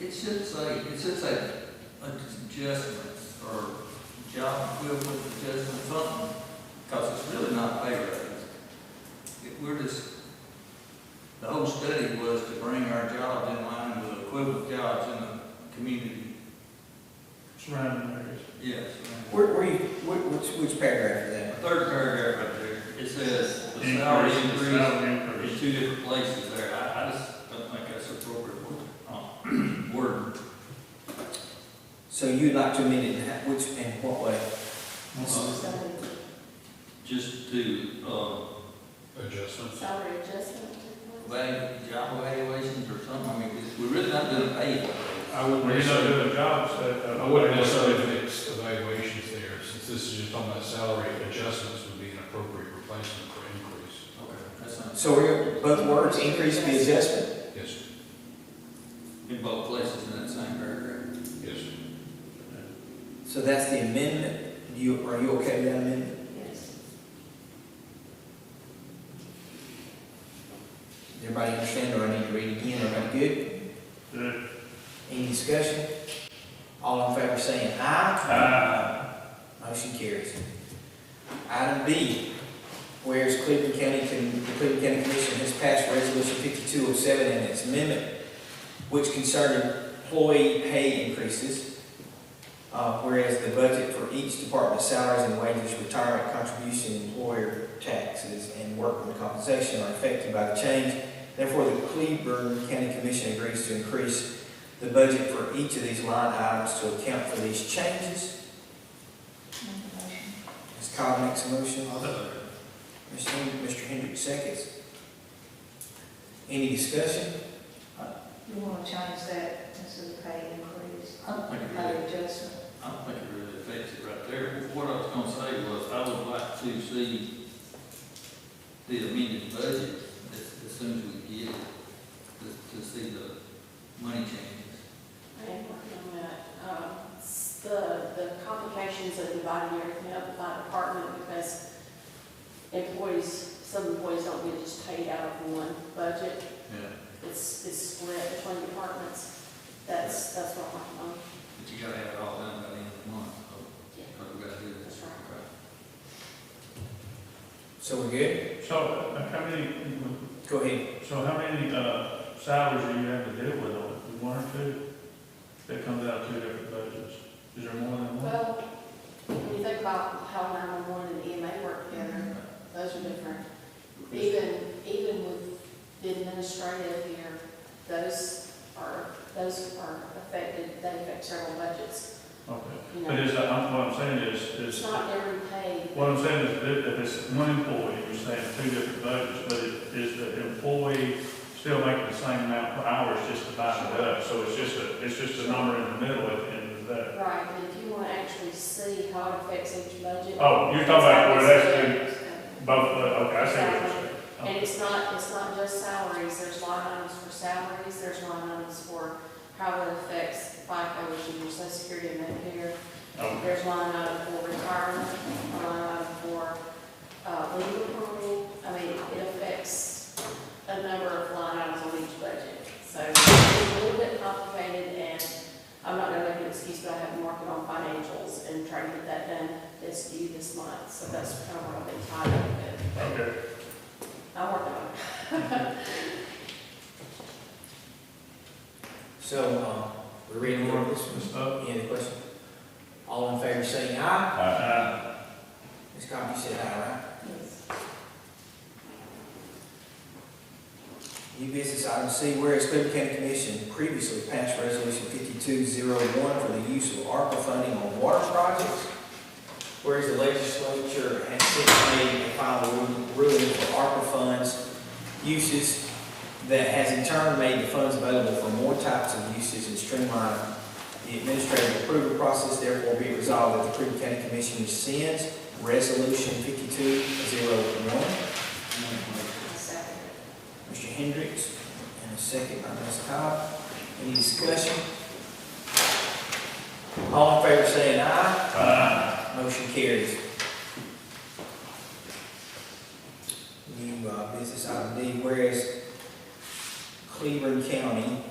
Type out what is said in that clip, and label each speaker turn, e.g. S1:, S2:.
S1: It should say, it should say adjustments or job equivalent adjustment something, because it's really not pay raise. It- We're just, the whole study was to bring our jobs in line with equivalent jobs in the community.
S2: surrounding areas.
S1: Yes.
S3: Where, where you, which, which, which paragraph is
S1: The
S3: that?
S1: third paragraph right there, it says the salary increase
S2: Salary
S1: There's
S2: increase.
S1: two different places there, I, I just don't think that's appropriate uh, word.
S3: So you'd like to amend it, in that- which, and what way?
S2: Well,
S4: Salary
S1: uh, Just to, uh,
S5: Adjustment.
S4: salary adjustment.
S1: value, job evaluations or something, I mean, it's- we're really not doing pay.
S5: I wouldn't
S2: We're not
S5: necessarily,
S2: doing jobs that. uh,
S5: I wouldn't necessarily fix evaluations there, since this is just talking about salary adjustments would be an appropriate replacement for increase.
S1: Okay. That's not,
S3: So we're, both words, increase the adjustment?
S5: Yes,
S1: in both places in that same paragraph.
S5: yes.
S3: So that's the amendment, you, are you okay with that amendment?
S4: Yes.
S3: Everybody understand, or I need to read it again, everybody good?
S2: Good.
S3: Any discussion? All in favor saying aye.
S2: Uh,
S3: Motion carries. Item B, whereas Cleveland County, Con- the Cleveland County Commission has passed Resolution 5207 and its amendment, which concerned employee pay increases, uh, whereas the budget for each department's salaries and wages, retirement contribution, employer taxes, and workman compensation are affected by the change. Therefore, the Cleveland County Commission agrees to increase the budget for each of these line items to account for these changes. Ms. Cobb makes a motion. Mr. Hen- Mr. Hendricks seconds. Any discussion?
S4: You want to change that instead of pay increase, um,
S1: Like
S4: pay adjustment.
S1: I don't think it really affects it right there. What I was gonna say was, I would like to see the amended budget as, as soon as we get it, to, to see the money changes.
S6: I am working on that. Um, s- The, the complications of dividing everything up by department because employees, some employees don't get just paid out of one budget.
S1: Yeah.
S6: It's, it's split between departments. That's, that's what I'm working on.
S1: But you gotta have it all done by the end of the month, so,
S6: Yeah.
S1: but we gotta do this.
S6: That's right.
S3: So we're good?
S2: So uh, how many,
S3: Go ahead.
S2: so how many uh, salaries do you have to deal with on it? One or two? That comes out of two different budgets. Is there more than one?
S6: Well, when you think about how 911 and EMA work together, those are different. Even, even with the administrative here, those are, those are affected, they affect several budgets,
S2: Okay.
S6: you
S2: But
S6: know.
S2: is, that- I'm- what I'm saying is,
S6: It's
S2: is,
S6: not every pay,
S2: what I'm saying is that if it's one employee, you're saying two different budgets, but it- is the employee still making the same amount per hour, it's just divided up? So it's just a, it's just a number in the middle at the end of the day?
S6: right, but if you want to actually see how it affects each budget.
S2: Oh, you're talking about where that's been,
S6: it's-
S2: both, uh, okay, I see what you're saying.
S6: And it's not, it's not just salaries, there's line items for salaries, there's line items for how it affects FICA, which is your social security and Medicare.
S2: Oh,
S6: There's line item for retirement, a line item for, uh, legal approval. I mean, it affects a number of line items on each budget. So it's a little bit complicated and I'm not gonna make an excuse, but I have to mark it on financials and try to get that done this due this month. So that's kind of what I've been tied up with.
S2: Okay.
S6: I'm working on it.
S3: So, um, we're reading more of this.
S2: Ms. Bub?
S3: Any other questions? All in favor saying aye.
S2: Uh,
S3: Ms. Cobb, you said aye, right? New business item C, whereas Cleveland County Commission previously passed Resolution 5201 for the use of ARPA funding on water projects. Whereas the legislature has since made a final ru- ruling for ARPA funds uses that has in turn made the funds available for more types of uses and streamlined the administrative approval process. Therefore, be resolved that the Cleveland County Commission rescinds Resolution 5201.
S6: Second.
S3: Mr. Hendricks, and a second by Ms. Cobb. Any discussion? All in favor saying aye.
S2: uh,
S3: Motion carries. New uh, business item D, whereas Cleveland County